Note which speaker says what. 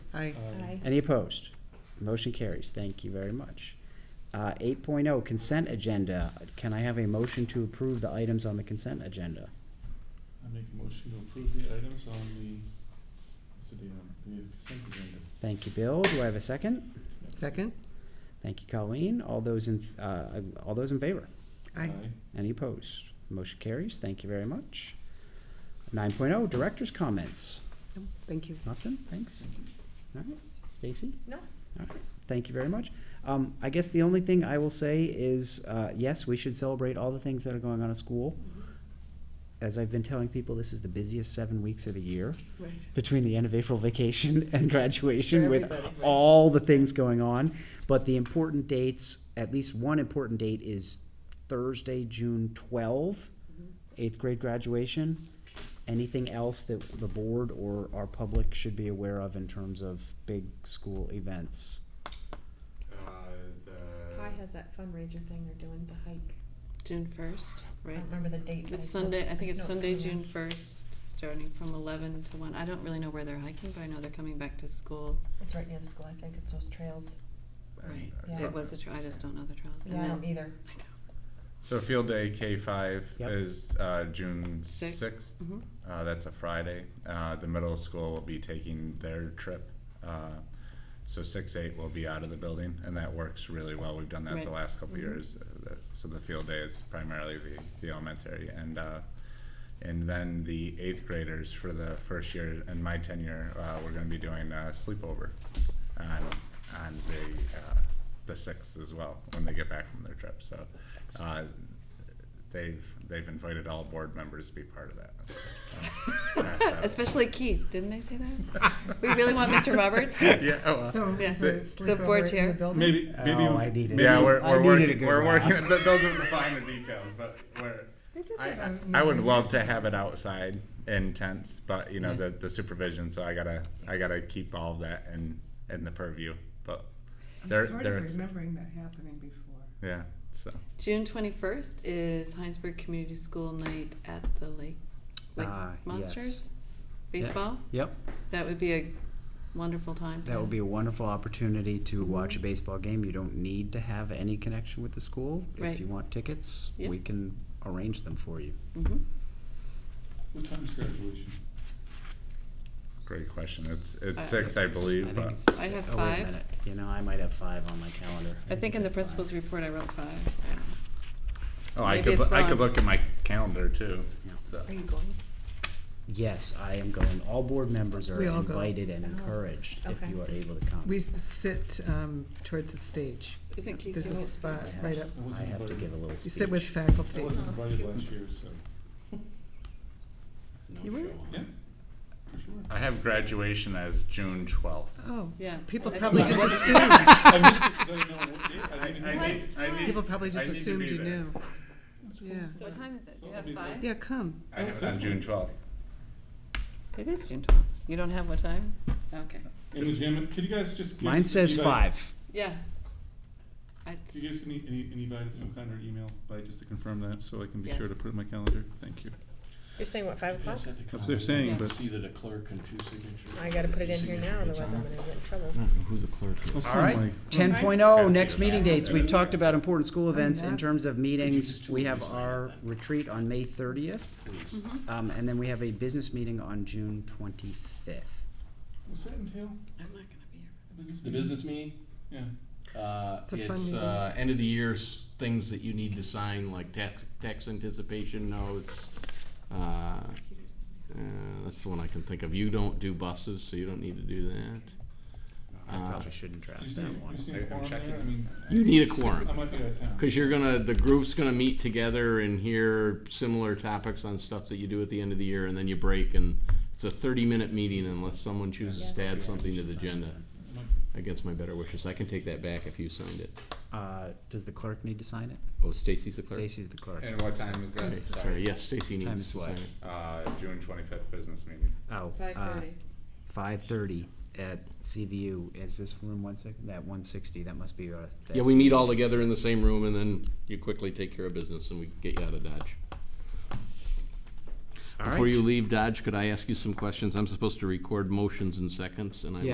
Speaker 1: Aye.
Speaker 2: Aye.
Speaker 3: Any opposed? Motion carries. Thank you very much. Uh, eight consent agenda. Can I have a motion to approve the items on the consent agenda?
Speaker 2: I make a motion to approve the items on the, what's the date on, it? the consent agenda.
Speaker 3: Thank you, Bill. Do I have a second?
Speaker 1: Second?
Speaker 3: Thank you, Colleen. All those in, uh, all those in favor?
Speaker 1: Aye.
Speaker 3: Any opposed? Motion carries. Thank you very much. Nine oh, director's comments.
Speaker 1: No, Thank you.
Speaker 3: Nothing? Thanks. All right. Stacy?
Speaker 4: No.
Speaker 3: All right. Thank you very much. Um, I guess the only thing I will say is, uh, yes, we should celebrate all the things that are going on at school. As I've been telling people, this is the busiest seven weeks of the year
Speaker 4: Right.
Speaker 3: between the end of April vacation and graduation
Speaker 4: For
Speaker 3: with
Speaker 4: everybody, right.
Speaker 3: all the things going on. But the important dates, at least one important date is Thursday, June 12,
Speaker 4: Mm-hmm.
Speaker 3: eighth grade graduation. Anything else that the board or our public should be aware of in terms of big school events?
Speaker 5: Uh, the.
Speaker 6: Uh,
Speaker 4: Pi has that fundraiser thing they're doing, the hike.
Speaker 7: June first,
Speaker 4: I
Speaker 7: right?
Speaker 4: don't remember the date. but
Speaker 7: It's
Speaker 4: still-
Speaker 7: Sunday, I think
Speaker 4: just
Speaker 7: it's
Speaker 4: know
Speaker 7: Sunday,
Speaker 4: Uh-huh. coming
Speaker 7: June
Speaker 4: up.
Speaker 7: first, starting from eleven to one. I don't really know where they're hiking, but I know they're coming back to school.
Speaker 4: It's right near the school, I think, it's those trails.
Speaker 7: Right.
Speaker 4: Yeah.
Speaker 7: It was a trail, I just don't know the trail. And
Speaker 4: Yeah, I
Speaker 7: then-
Speaker 4: don't either.
Speaker 7: I know.
Speaker 5: So field day K five
Speaker 3: Yep.
Speaker 5: is uh, June
Speaker 7: Six.
Speaker 5: sixth.
Speaker 7: Mhm.
Speaker 5: Uh, that's a Friday. Uh, the middle school will be taking their trip. Uh, so six eight will be out of the building, and that works really well. We've done that
Speaker 7: Right.
Speaker 5: the last couple
Speaker 7: Mhm.
Speaker 5: years. Uh, that, so the field day is primarily the, the elementary, and uh, and then the eighth graders for the first year in my tenure, uh, we're going to be doing a sleepover on on the uh, the sixth as well when they get back from their trip. So. Uh, they've they've invited all board members to be part of that. So, that's how-
Speaker 7: Especially Keith, didn't they say that? We really want Mr. Roberts?
Speaker 5: yeah, oh, well.
Speaker 1: So,
Speaker 7: Yeah.
Speaker 1: is
Speaker 7: The-
Speaker 1: it
Speaker 7: the board
Speaker 1: sleepover in
Speaker 7: chair.
Speaker 1: building?
Speaker 2: Maybe, maybe.
Speaker 3: Oh,
Speaker 2: we-
Speaker 3: I needed-
Speaker 2: maybe-
Speaker 5: yeah,
Speaker 3: I
Speaker 5: we're,
Speaker 3: needed a
Speaker 5: we're working.
Speaker 3: good
Speaker 5: We're
Speaker 3: laugh.
Speaker 5: working. th- Those are the finer details, but we're. I, I, I would love to have it outside in tents, but you know the, the supervision. So I gotta I gotta keep all of that in in the purview. But they're
Speaker 8: I'm sort
Speaker 5: they're
Speaker 8: of remembering that happening before.
Speaker 5: yeah. So
Speaker 7: June twenty-first is Heinsberg Community School Night at the Lake, Lake
Speaker 3: Ah, yes.
Speaker 7: Monsters Baseball.
Speaker 3: Yep,
Speaker 7: That would be a wonderful time.
Speaker 3: that would be a wonderful opportunity to watch a baseball game. You don't need to have any connection with the school. If
Speaker 7: Right.
Speaker 3: you want tickets,
Speaker 7: Yep.
Speaker 3: we can arrange them for you.
Speaker 7: hmm
Speaker 2: What time is graduation?
Speaker 5: great question. It's it's
Speaker 7: I-
Speaker 5: six, I believe.
Speaker 3: Uh, I
Speaker 5: but-
Speaker 3: think it's.
Speaker 7: Uh, I have
Speaker 3: oh, wait a
Speaker 7: five.
Speaker 3: minute. You know, I might have five on my calendar.
Speaker 7: I think in the
Speaker 3: five.
Speaker 7: principal's report I wrote five, so.
Speaker 5: Oh, I
Speaker 7: Maybe
Speaker 5: could,
Speaker 7: it's
Speaker 5: loo- I could
Speaker 7: wrong.
Speaker 5: look at my calendar too,
Speaker 3: Yeah.
Speaker 5: so.
Speaker 4: Are you going?
Speaker 3: Yes, I am going. All board members are
Speaker 1: We all go.
Speaker 3: invited and
Speaker 4: Oh,
Speaker 3: encouraged if
Speaker 4: okay.
Speaker 3: you are able to come.
Speaker 1: We s- sit um, towards the stage.
Speaker 7: Isn't Keith?
Speaker 1: There's a
Speaker 7: Gibbons-
Speaker 1: spot
Speaker 3: I
Speaker 1: right
Speaker 3: have-
Speaker 1: up.
Speaker 2: I
Speaker 3: I
Speaker 2: wasn't
Speaker 3: have to
Speaker 2: invited.
Speaker 3: give a little
Speaker 1: You sit with
Speaker 3: speech.
Speaker 2: I
Speaker 1: faculty.
Speaker 2: wasn't invited last year, so,
Speaker 1: You were?
Speaker 2: yeah, for sure.
Speaker 5: I have graduation as June twelfth.
Speaker 1: Oh,
Speaker 7: Yeah.
Speaker 1: people
Speaker 7: I think
Speaker 1: probably
Speaker 7: it
Speaker 1: just
Speaker 7: was-
Speaker 1: assumed,
Speaker 2: I missed it 'cause I didn't know what date, I didn't know.
Speaker 1: people probably just
Speaker 5: I need to
Speaker 1: assumed
Speaker 5: be
Speaker 1: you
Speaker 5: there.
Speaker 1: knew.
Speaker 2: That's cool.
Speaker 1: Yeah,
Speaker 7: So what time is it? Do you
Speaker 2: So
Speaker 7: have
Speaker 2: it'll be
Speaker 7: five?
Speaker 1: yeah, come.
Speaker 5: I have it on June twelfth.
Speaker 7: It is June twelfth. You don't have what time? Okay.
Speaker 2: In the gym, could you guys just? give
Speaker 3: Mine
Speaker 2: us
Speaker 3: says
Speaker 2: feedback?
Speaker 3: five.
Speaker 7: Yeah. I-
Speaker 2: Could you give us any, any, any guidance, some kind of email, by just to confirm that, so I can be sure to
Speaker 7: Yes.
Speaker 2: put it in my calendar, thank you.
Speaker 4: You're saying what, five o'clock?
Speaker 6: Yes, at the
Speaker 2: That's what they're
Speaker 6: common.
Speaker 2: saying,
Speaker 7: Yeah.
Speaker 2: but.
Speaker 6: It's either the clerk and two signatures.
Speaker 4: I gotta put it in here now,
Speaker 6: Signature, it's
Speaker 4: otherwise I'm
Speaker 6: on.
Speaker 4: gonna get in trouble.
Speaker 6: I don't know who the clerk
Speaker 2: Well,
Speaker 6: is.
Speaker 3: All right,
Speaker 2: Something like-
Speaker 3: ten oh next meeting dates. We've talked about important school
Speaker 1: I'm
Speaker 3: events in
Speaker 1: not-
Speaker 3: terms of meetings.
Speaker 6: just
Speaker 3: We have
Speaker 6: sign it
Speaker 3: our
Speaker 6: then?
Speaker 3: retreat on May thirtieth,
Speaker 6: Please.
Speaker 3: um, and then we have a business meeting on June twenty-fifth.
Speaker 2: What's that entail?
Speaker 7: I'm not gonna be here.
Speaker 6: The business meeting,
Speaker 2: Yeah.
Speaker 6: uh,
Speaker 1: It's a fun
Speaker 6: it's,
Speaker 1: meeting.
Speaker 6: uh, end of the year s- things that you need to sign, like tax, tax anticipation notes. Uh, uh, that's the one I can think of. You don't do buses, so you don't need to do that.
Speaker 3: I
Speaker 6: Uh,
Speaker 3: probably shouldn't
Speaker 2: Do
Speaker 3: draft
Speaker 2: you see,
Speaker 3: that
Speaker 2: do you
Speaker 3: one.
Speaker 2: see
Speaker 5: I-
Speaker 2: a
Speaker 5: I'm
Speaker 2: quorum there?
Speaker 5: checking.
Speaker 2: I mean,
Speaker 6: You need a quorum.
Speaker 2: I might be out of town.
Speaker 6: Because you're gonna, the group's gonna meet together and hear similar topics on stuff that you do at the end of the year, and then you break, and it's a thirty-minute meeting unless someone chooses
Speaker 4: Yes.
Speaker 6: to add something to the agenda.
Speaker 2: I might-
Speaker 6: Against my better wishes, I can take that back if you signed it.
Speaker 3: Uh, does the clerk need to sign it?
Speaker 6: Oh, Stacy's the clerk.
Speaker 3: Stacy's the clerk.
Speaker 5: And what time is that?
Speaker 6: Okay, Sorry, yes, Stacy
Speaker 3: Time
Speaker 6: needs
Speaker 3: is
Speaker 6: to
Speaker 3: what?
Speaker 6: sign it.
Speaker 5: Uh, June twenty-fifth business meeting.
Speaker 1: Uh,
Speaker 3: Oh,
Speaker 7: Five thirty.
Speaker 3: Five thirty at CVU. Is this room one six, that one sixty? That must be our.
Speaker 6: Yeah, we meet all together in the same room, and then you quickly take care of business, and we get you out of Dodge.
Speaker 3: All
Speaker 6: Before
Speaker 3: right.
Speaker 6: you leave Dodge, could I ask you some questions? I'm supposed to record motions and seconds, and I
Speaker 3: Yeah.